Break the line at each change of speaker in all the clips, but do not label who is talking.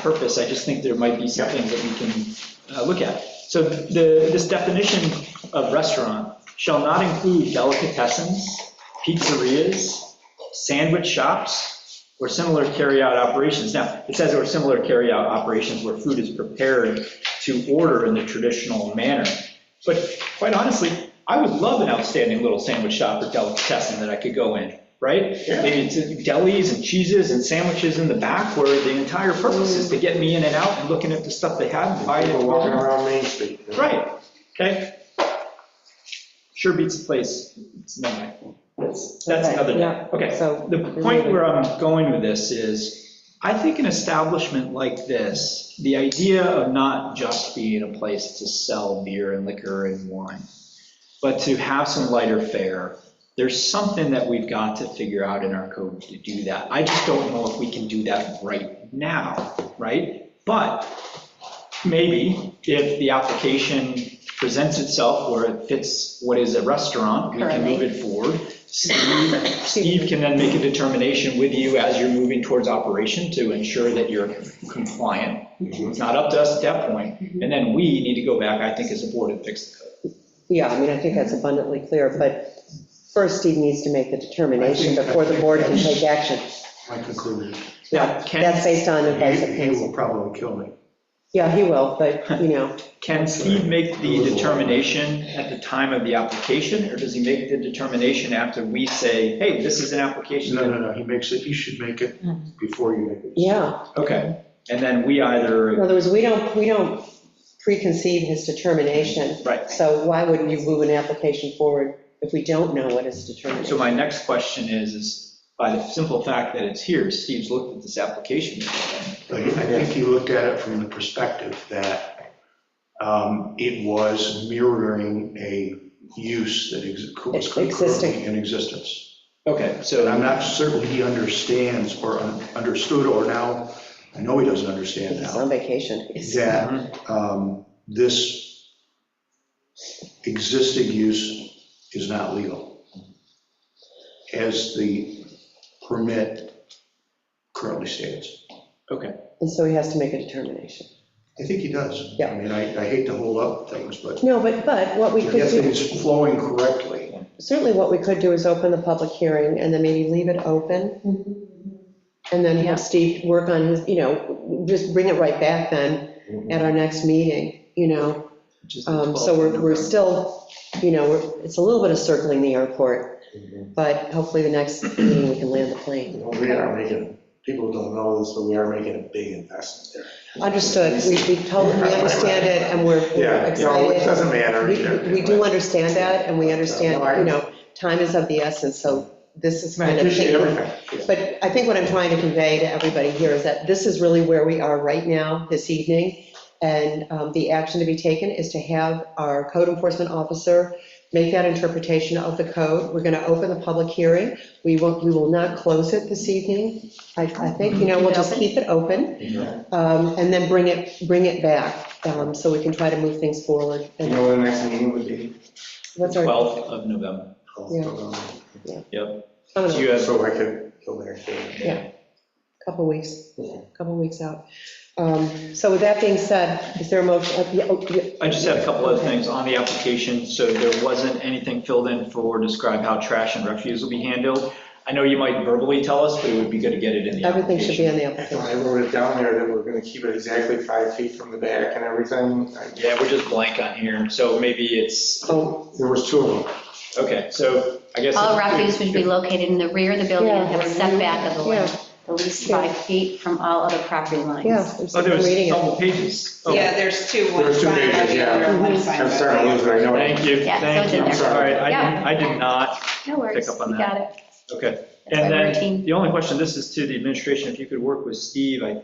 purpose, I just think there might be something that we can uh, look at. So the, this definition of restaurant shall not include delicatessens, pizzerias, sandwich shops, or similar carryout operations. Now, it says or similar carryout operations where food is prepared to order in the traditional manner. But quite honestly, I would love an outstanding little sandwich shop or delicatessen that I could go in, right?
Yeah.
Maybe it's delis and cheeses and sandwiches in the back where the entire purpose is to get me in and out and looking at the stuff they have and buying it.
People
and walking
walking
around.
around Main Street. you know?
Right, okay. Sure beats the place. It's no way. That's, that's
Okay,
another,
yeah,
okay.
so-
The point where I'm going with this is, I think an establishment like this, the idea of not just being a place to sell beer and liquor and wine, but to have some lighter fare, there's something that we've got to figure out in our code to do that. I just don't know if we can do that right now, right? But maybe if the application presents itself where it fits what is a restaurant, we can move it forward. Steve, Steve can then make a determination with you as you're moving towards operation to ensure that you're compliant. It's not up to us at that point. And then we need to go back, I think, as a board and fix the code.
Yeah, I mean, I think that's abundantly clear, but first Steve needs to make the determination before the board can take action.
My conclusion.
Now, Ken,
That's based on advice of
He he
counsel.
will probably kill me.
Yeah, he will, but, you know,
can Steve make the determination at the time of the application? Or does he make the determination after we say, hey, this is an application?
No,
that-
no, no, he makes it, you should make it before you make it.
yeah.
Okay, and then we either
In other words, we don't, we don't preconceive his determination.
Right.
So why would you move an application forward if we don't know what his
So
determination?
my next question is, is by the simple fact that it's here, Steve's looked at this application.
But I think he looked at it from the perspective that um, it was mirroring a use that ex- was
Existing.
currently in existence.
Okay,
But I'm
so,
not certain he understands or un- understood, or now, I know he doesn't understand
He's
now.
on vacation.
Mhm.
that um, this existing use is not legal as the permit currently stands.
okay,
And so he has to make a determination.
I think he does.
Yeah.
I mean, I I hate to hold up things, but
No, but, but what we
if
could do.
it's flowing correctly,
Certainly what we could do is open the public hearing and then maybe leave it open. And then have Steve work on his, you know, just bring it right back then at our next meeting, you know?
which is the
Um,
12th
So we're,
of
we're
November.
still, you know, we're- it's a little bit of circling the airport, but hopefully the next meeting we can land the plane.
Well, We are making, people don't know this, but we are making a big investment
Understood, we, we totally, we understand it and we're we're
there. Yeah, you know, it
excited.
doesn't matter.
We,
either.
we do understand that and we understand,
No, I-
you know, time is of the essence, so this is
I
kind of.
appreciate
taking-
everything.
But I think what I'm trying to convey to everybody here is that this is really where we are right now, this evening. And um, the action to be taken is to have our code enforcement officer make that interpretation of the code. We're going to open the public hearing. We won't, we will not close it this evening. I, I think, you know, we'll just keep it open um, and then bring it, bring it back um, so we can try to move things forward.
You
And
know what the next meeting would be?
what's our,
12th of November. Yep.
I don't
Do
know,
you have,
So I could go there. too.
a couple weeks. couple weeks out. Um, So with that being said, is there a motion? uh, yeah, oh, yeah,
I just had a couple other things on the application, so there wasn't anything filled in for describe how trash and refuse will be handled. I know you might verbally tell us, but it would be good to get it in the
Everything should be
application.
on the
So
application.
I wrote it down there that we're gonna keep it exactly five feet from the back and everything. I-
Yeah, we're just blank on here, so maybe it's,
Oh,
There was two of them.
okay, so I guess.
All refuse would be located in the rear of the building and have a setback of the
Yeah.
land, at least five feet from all other property lines.
yeah. I'm
Oh,
sorry,
there
I'm
was
reading it.
double pages. Oh,
Yeah, there's two, one
There's two
signed by
pages,
the
yeah. Mm-hmm.
other, one signed by
I'm
the
starting to lose it, I know. it.
Thank you,
Yeah, so
thank
it's
you.
in
I'm
there.
sorry, I
Yeah.
didn't, I did not,
No worries,
Pick up on
we
that.
got it.
okay.
That's why
And
we're a
then,
team.
the only question, this is to the administration, if you could work with Steve, I, you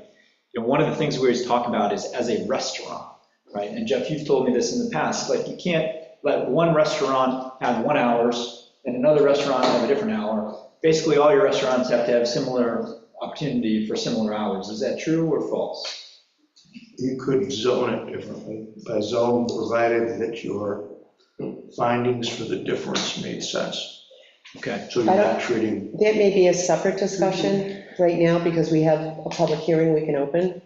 know, one of the things we always talk about is as a restaurant, right? And Jeff, you've told me this in the past, like, you can't let one restaurant have one hours and another restaurant have a different hour. Basically, all your restaurants have to have similar opportunity for similar hours. Is that true or false?
you could zone it differently, by zone provided that your findings for the difference made sense.
Okay,
So you're not treating
That may be a separate discussion right now because we have a public hearing we can open.